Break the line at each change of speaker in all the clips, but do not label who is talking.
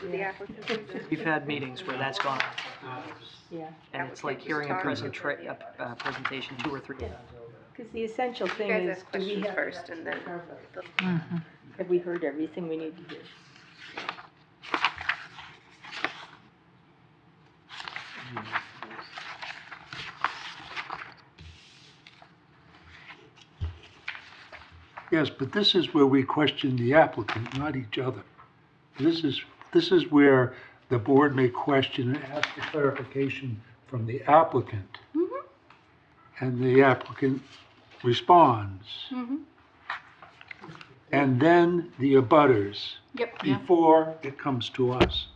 to the applicants. and-
We've had meetings where that's gone,
Yeah,
and it's like hearing a present, tra- a, a presentation two or three.
because the essential
You
thing
guys
is,
ask
do we
questions
have,
first and then.
have we heard everything we need to hear?
Yes, but this is where we question the applicant, not each other. This is, this is where the board may question and ask for clarification from the applicant.
Mm-hmm,
And the applicant responds.
mm-hmm.
And then the abutters.
Yep.
Before it comes to us.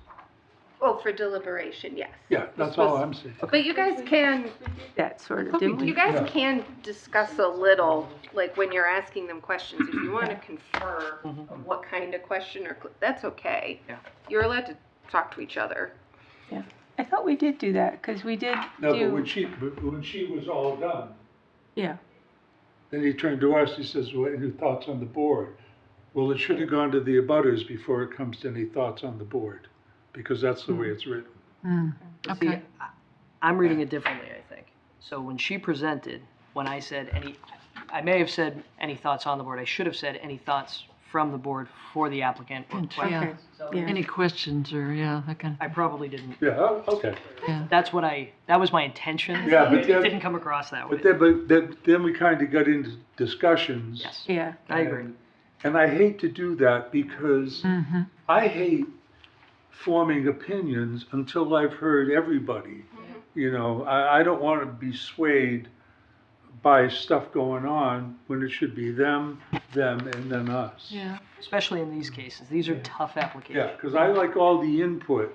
Well, for deliberation, yes.
Yeah, that's all I'm saying.
But you guys can,
That sort of, didn't
you
we?
guys can discuss a little, like when you're asking them questions, if you wanna confer
Mhm.
what kind of question or, cl- that's okay.
Yeah.
You're allowed to talk to each other.
I thought we did do that, because we did
No, but when
do,
she, but when she was all done,
yeah,
Then he turned to us, he says, well, any thoughts on the board? Well, it should have gone to the abutters before it comes to any thoughts on the board, because that's the way it's written.
See, I- I'm reading it differently, I think. So when she presented, when I said any, I may have said any thoughts on the board, I should have said any thoughts from the board for the applicant or questions.
okay,
Yeah,
yeah.
any questions or, yeah, that kind
I probably didn't,
Yeah, oh, okay.
of, yeah.
that's what I, that was my intention.
Yeah, but
It
then-
didn't come across that way.
But then, but then, then we kind of got into discussions.
Yes,
Yeah,
I agree.
And I hate to do that because
Mhm.
I hate forming opinions until I've heard everybody. You know, I, I don't want to be swayed by stuff going on when it should be them, them, and then us.
Yeah,
Especially in these cases, these are tough
Yeah,
applications.
because I like all the input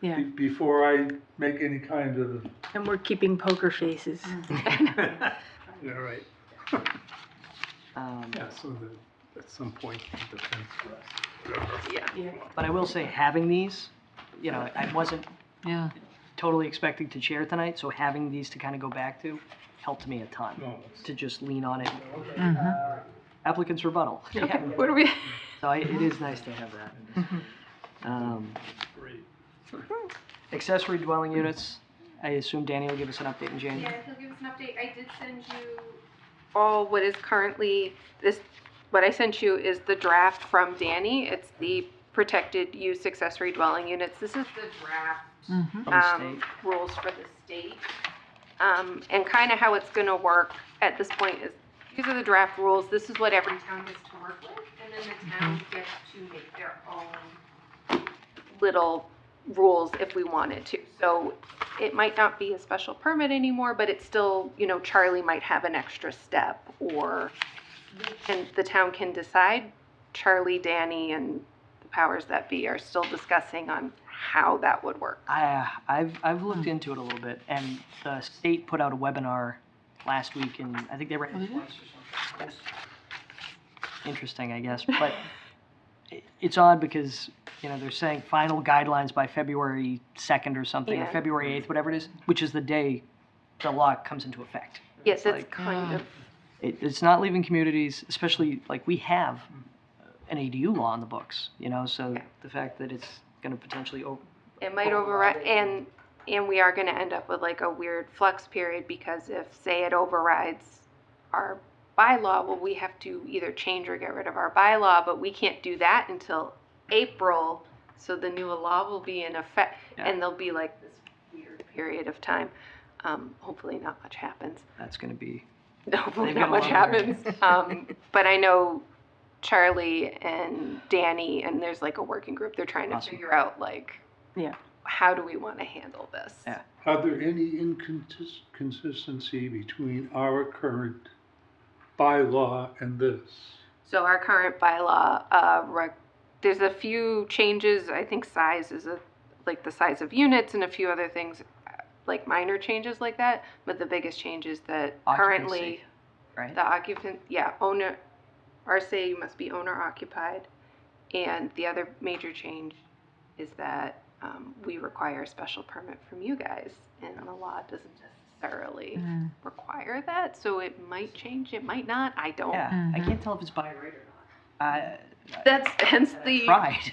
yeah,
be- before I make any kind of.
and we're keeping poker faces.
Yeah, right.
Um,
so that, at some point, the fence
Yeah.
But I will say, having these, you know, I wasn't
yeah,
totally expecting to chair tonight, so having these to kind of go back to helped me a ton to just lean on it.
mhm.
Applicant's rebuttal.
Okay, what are we?
So I- it is nice to have that. Um, Accessory dwelling units, I assume Danny will give us an update in
Yeah,
January.
he'll give us an update. I did send you. All what is currently, this, what I sent you is the draft from Danny. It's the protected use accessory dwelling units. This is the draft
Mhm.
from the
um,
state.
rules for the state. Um, and kind of how it's gonna work at this point is, these are the draft rules, this is what every town gets to work with, and then the town
Mm-hmm.
gets to make their own little rules if we wanted to. So it might not be a special permit anymore, but it's still, you know, Charlie might have an extra step, or, and the town can decide. Charlie, Danny, and the powers that be are still discussing on how that would work.
I, I've, I've
Hmm.
looked into it a little bit, and the state put out a webinar last week, and I think they ran it
Oh, did they?
twice or something. Interesting, I guess, but i- it's odd because, you know, they're saying final guidelines by February second or something, or
Yeah.
February eighth, whatever it is, which is the day the law comes into effect.
Yes, that's
like- uh,
kind
Yeah.
of,
It, it's not leaving communities, especially, like, we have an ADU law on the books, you know, so
Yeah.
the fact that it's gonna potentially, oh, o-
it might override, and, and we are gonna end up with like a weird flux period, because if, say, it overrides our bylaw, well, we have to either change or get rid of our bylaw, but we can't do that until April, so the new law will be in effect,
Yeah.
and there'll be like this weird period of time. Um, hopefully not much happens.
that's gonna be,
No, hopefully
They've
not
got a
much
lot of
happens. Um, but I know Charlie and Danny, and there's like a working group. They're trying to
Awesome.
figure out like,
Yeah.
how do we want to handle this?
Yeah.
Are there any inconsistency between our current bylaw and this?
So our current bylaw, uh, rec- there's a few changes. I think size is a like the size of units and a few other things, uh, like minor changes like that. But the biggest change is that currently
Occupancy. right?
the occupant, yeah, owner, RSA must be owner occupied. And the other major change is that um, we require a special permit from you guys, and the law doesn't necessarily
Mm.
require that, so it might change, it might not, I don't.
Yeah, Oh. I
Mhm.
can't tell if it's by right or not. Uh, I
That's hence the
tried.